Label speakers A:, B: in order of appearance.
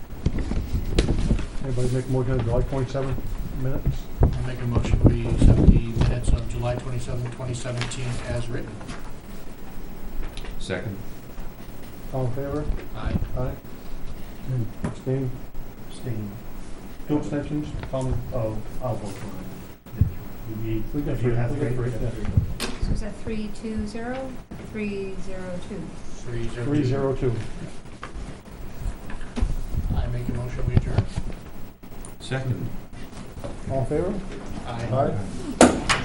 A: Anybody make a motion on July twenty-seventh minutes?
B: I'll make a motion, we accept the minutes of July 27, 2017 as written.
C: Second.
A: All in favor?
B: Aye.
A: Aye. Abstain?
D: Staying.
A: Two abstentions? Tom? uh,
D: Oh, I'll vote for it. You need,
A: We got
D: if you
A: three,
D: have
A: we got
D: three, you
A: three,
D: have
A: yeah.
D: three.
E: So is that three two zero, three zero two?
B: Three zero two.
A: Three zero two.
B: I make a motion, we adjourn.
C: Second.
A: All in favor?
B: Aye.
A: Aye.